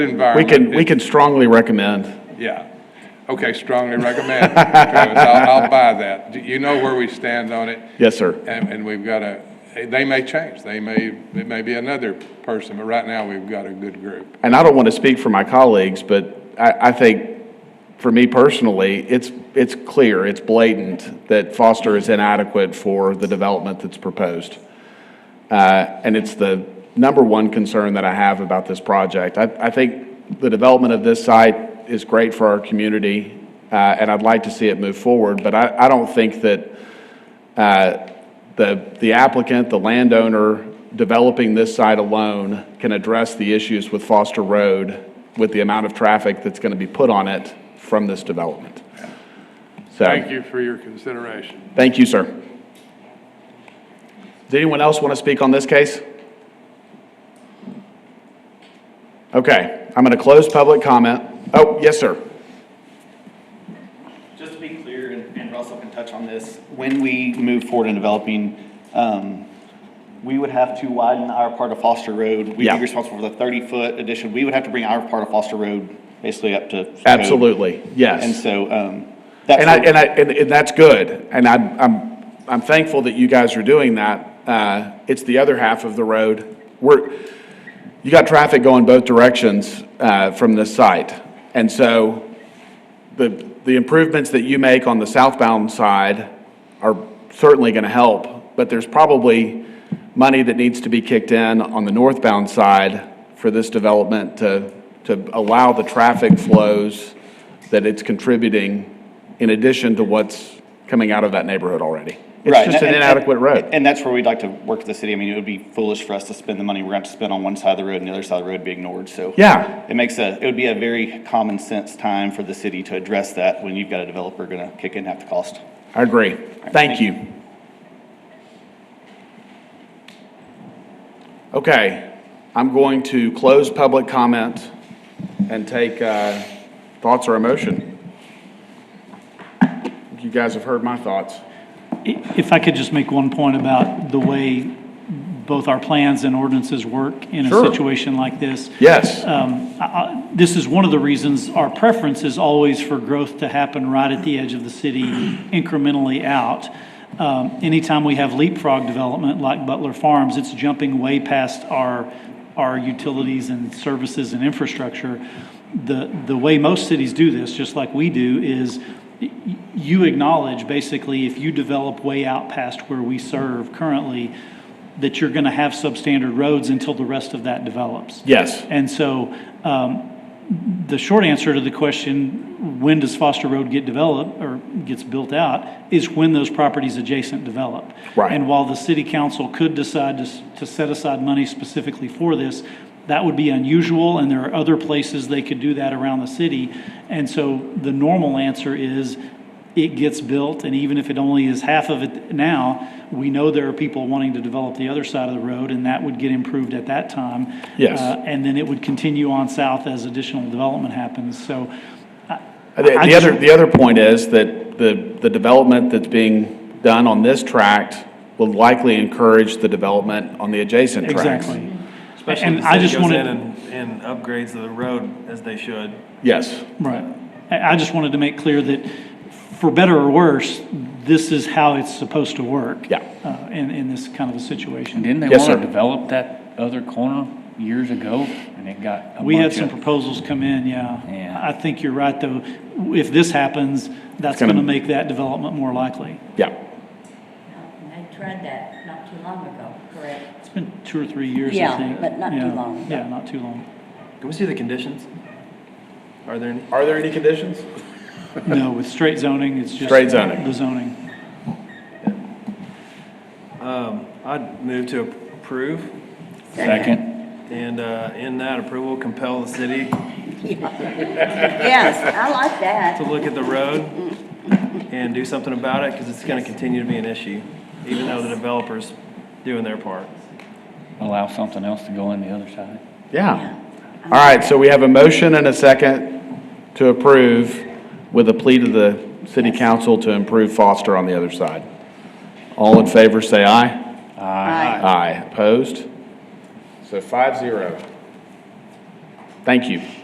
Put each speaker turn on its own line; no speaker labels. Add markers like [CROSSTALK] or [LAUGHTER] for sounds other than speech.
We
environment.
can, we can strongly recommend.
Yeah. Okay, strongly recommend, Travis. I'll, I'll buy that. You know where we stand on it.
Yes, sir.
And, and we've got a, they may change, they may, it may be another person, but right now, we've got a good group.
And I don't want to speak for my colleagues, but I, I think, for me personally, it's, it's clear, it's blatant that Foster is inadequate for the development that's proposed. Uh, and it's the number one concern that I have about this project. I, I think the development of this site is great for our community, uh, and I'd like to see it move forward, but I, I don't think that uh, the, the applicant, the landowner developing this site alone can address the issues with Foster Road with the amount of traffic that's going to be put on it from this development.
Thank
So,
you for your consideration.
thank you, sir. Does anyone else want to speak on this case? Okay, I'm going to close public comment. Oh, yes, sir.
Just to be clear, and and Russell can touch on this, when we move forward in developing, um, we would have to widen our part of Foster Road. We'd
Yeah.
be responsible for the 30-foot addition. We would have to bring our part of Foster Road basically up to. code.
Absolutely, yes.
And so um, that's.
And I, and I, and, and that's good. And I'm, I'm, I'm thankful that you guys are doing that. Uh, it's the other half of the road. We're, you got traffic going both directions, uh, from this site. And so the, the improvements that you make on the southbound side are certainly going to help, but there's probably money that needs to be kicked in on the northbound side for this development to, to allow the traffic flows that it's contributing in addition to what's coming out of that neighborhood already.
Right,
It's just an
and- and-
inadequate road.
And that's where we'd like to work with the city. I mean, it would be foolish for us to spend the money we're going to spend on one side of the road and the other side of the road be ignored, so.
Yeah.
It makes a, it would be a very common sense time for the city to address that when you've got a developer going to kick in half the cost.
I agree. Thank you. Okay, I'm going to close public comment and take uh, thoughts or emotion. You guys have heard my thoughts.
If I could just make one point about the way both our plans and ordinances work in
Sure.
a situation like this.
Yes,
Um, I- I- This is one of the reasons our preference is always for growth to happen right at the edge of the city [CLEARS THROAT] incrementally out. Um, Anytime we have leapfrog development like Butler Farms, it's jumping way past our, our utilities and services and infrastructure. The, the way most cities do this, just like we do, is y- you acknowledge basically if you develop way out past where we serve currently, that you're going to have substandard roads until the rest of that develops.
yes.
And so um, the short answer to the question, when does Foster Road get developed or gets built out, is when those properties adjacent develop.
Right.
And while the city council could decide to, s- to set aside money specifically for this, that would be unusual, and there are other places they could do that around the city. And so the normal answer is, it gets built, and even if it only is half of it now, we know there are people wanting to develop the other side of the road, and that would get improved at that time.
Yes.
Uh, and then it would continue on south as additional development happens, so. I-
The the
I just-
other, the other point is that the, the development that's being done on this tract will likely encourage the development on the adjacent tracts.
Exactly.
Especially
And
if the
I
city
just
goes
wanted-
in And and upgrades the road as they should.
Yes,
Right. I, I just wanted to make clear that, for better or worse, this is how it's supposed to work.
Yeah.
uh, In, in this kind of a situation.
Didn't they
Yes,
want to
sir.
develop that other corner years ago and it got a
We had
bunch
some
of?
proposals come in, yeah.
Yeah.
I think you're right, though. If this happens, that's
gonna-
going to make that development more likely.
yeah.
And I tried that not too long ago, correct?
[LAUGHS] It's been two or three years, I
Yeah,
think.
but not too
Yeah,
long.
Yeah, not too long.
Can we see the conditions? Are there any?
Are there any conditions?
No, with straight zoning, it's just.
Straight zoning.
The zoning.
Um, I'd move to approve
Second,
and, uh, in that approval compel the city
Yes, I like
to
that.
look at the road and do something about it because it's going to continue to be an issue, even though the developer's doing their part.
allow something else to go in the other side.
Yeah. All right, so we have a motion and a second to approve with a plea to the city council to improve Foster on the other side. All in favor, say aye.
Aye.
Aye. Opposed? So five zero. Thank you.